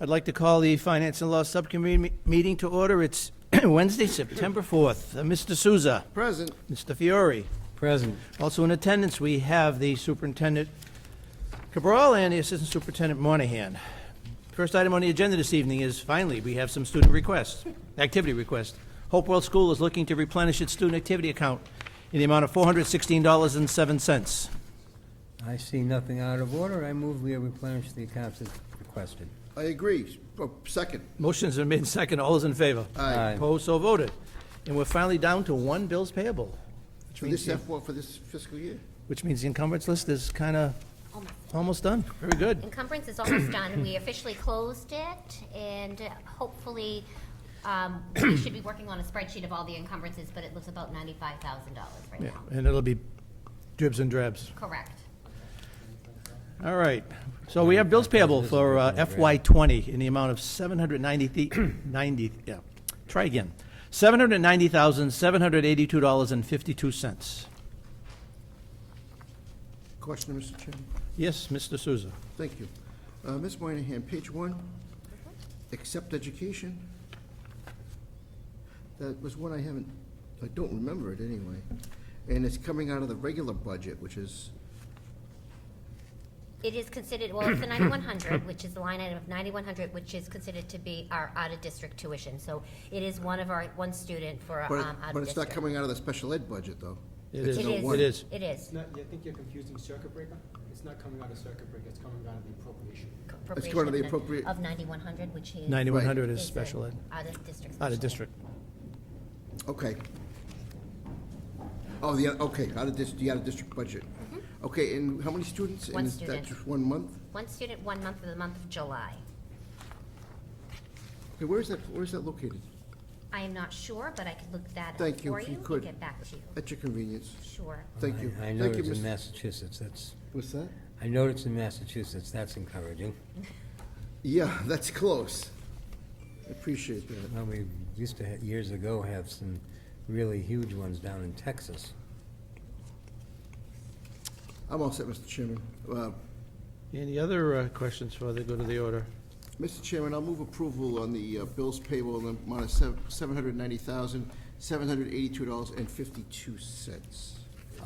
I'd like to call the Finance and Law Subcommittee me- meeting to order. It's Wednesday, September 4th. Uh, Mr. Souza, Present. Mr. Fiore. Present. Also in attendance, we have the Superintendent Cabral and the Assistant Superintendent Monahan. First item on the agenda this evening is, finally, we have some student requests, activity requests. Hopewell School is looking to replenish its student activity account in the amount of $416.07. I see nothing out of order. I move we replenish the accounts as requested. I agree. Oh, Second. Motion's been made and second. All those in favor? Aye. Opposed, so voted. And we're finally down to one bills payable, which For this means, the- F for this fiscal year. which means the encumbrance list is kind of Almost. almost done. Very good. Encumbrance is almost done. We officially closed it, and hopefully, um, we should be working on a spreadsheet of all the encumbrances, but it looks about ninety-five thousand dollars right Yeah, now. and it'll be dribs and drabs. Correct. All right. So we have bills payable for uh, FY '20 in the amount of 790, 90, yeah, try again. $790,782.52. Question, Mr. Chairman? Yes, Mr. Souza. Thank you. Uh, Ms. Moynihan, page one, accept education. That was one I haven't, I don't remember it anyway. And it's coming out of the regular budget, which is, It is considered, well, it's the ninety-one hundred, which is the line item of ninety-one hundred, which is considered to be our out-of-district tuition. So it is one of our, one student for, but, um, it- out but of it's not district. coming out of the special ed budget, though. It is. It's It no is. one. It is. It is. It's not, I think you're confusing circuit breaker. It's not coming out of circuit breaker, it's coming out of the appropriation. It's going to the appropriate- Of ninety-one hundred, which is. 9100 is is a special ed, out Out-of-district. special of ed. district. Okay. Oh, the, okay, out of this, the out of district budget. Okay, and how many students? Mm-hmm. One And is that student. just one month? One student, one month of the month of July. Okay, where is that, where is that located? I am not sure, but I could look that up for you. Thank you, if you and could. get back to you. At your convenience. Sure. Thank you. I- I Thank know you, it's in Mr. Massachusetts. That's, What's that? I know it's in Massachusetts. That's encouraging. Yeah, that's close. I Appreciate that. Well, we used to, ha- years ago, have some really huge ones down in Texas. I'm all set, Mr. Chairman. Uh, Any other uh, questions before they go to the order? Mr. Chairman, I'll move approval on the uh, bills payable in the amount of sev- $790,782.52.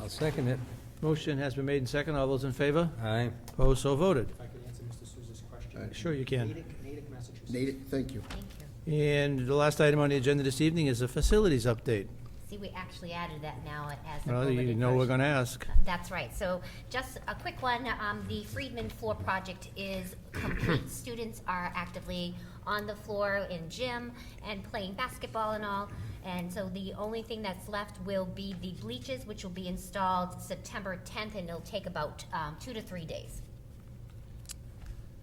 I'll second it. Motion has been made and second. All those in favor? Aye. Opposed, so voted. If I could answer Mr. Souza's question. Sure you can. Natick, Natick, Massachusetts. Nate, thank you. Thank you. And the last item on the agenda this evening is a facilities update. See, we actually added that now as a Well, you bulleted know we're version. going to ask. That's right. So just a quick one, um, the Friedman floor project is complete. Students are actively on the floor in gym and playing basketball and all. And so the only thing that's left will be the bleachers, which will be installed September tenth, and it'll take about, um, two to three days.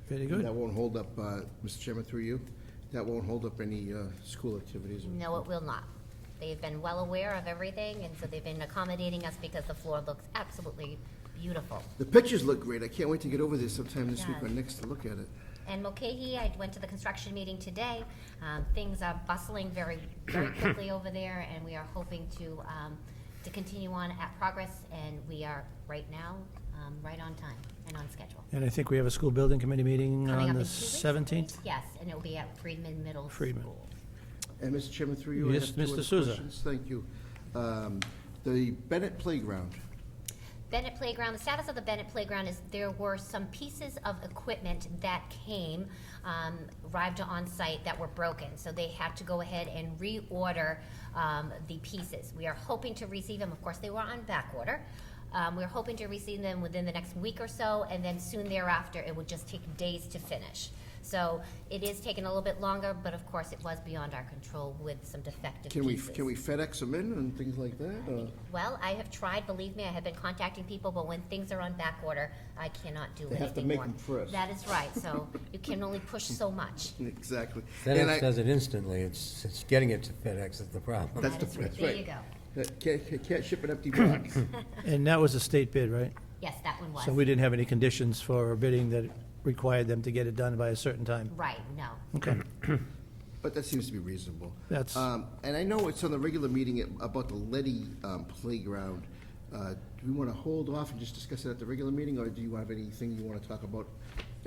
Very good. That won't hold up, uh, Mr. Chairman, through you, that won't hold up any uh, school activities. No, it will not. They've been well aware of everything, and so they've been accommodating us because the floor looks absolutely beautiful. The pictures look great. I can't wait to get over there sometime this week or Yes. next to look at it. And Mokahee, I went to the construction meeting today. Um, Things are bustling very, very quickly over there, and we are hoping to, um, to continue on at progress, and we are right now, um, right on time and on schedule. And I think we have a school building committee meeting Coming on up the in two weeks? 17th. Yes, and it will be at Friedman Middle Friedman. School. And Mr. Chairman, through you, I Yes, have two Mr. other Souza. questions. Thank you. Um, The Bennett Playground, Bennett Playground, the status of the Bennett Playground is there were some pieces of equipment that came, um, arrived on site that were broken. So they had to go ahead and reorder, um, the pieces. We are hoping to receive them, of course, they were on back order. Um, we're hoping to receive them within the next week or so, and then soon thereafter, it would just take days to finish. So it is taking a little bit longer, but of course, it was beyond our control with some defective can we, pieces. can we FedEx them in and things like that? or- Well, I have tried, believe me, I have been contacting people, but when things are on back order, I cannot do They anything more. have to make 'em first. That is right, so you can only push so much. Exactly. And I- FedEx does it instantly. It's, it's getting it to FedEx that's the problem. That's That the, is- that's There right. you go. Uh, Can't, can't- can't ship an empty box. And that was a state bid, right? Yes, that one So we was. didn't have any conditions for bidding that required them to get it done by a certain time. Right, no. Okay. But that seems to be reasonable. That's- Um, And I know it's on the regular meeting at- about the Letty um, Playground. Uh, Do we want to hold off and just discuss it at the regular meeting, or do you have anything you want to talk about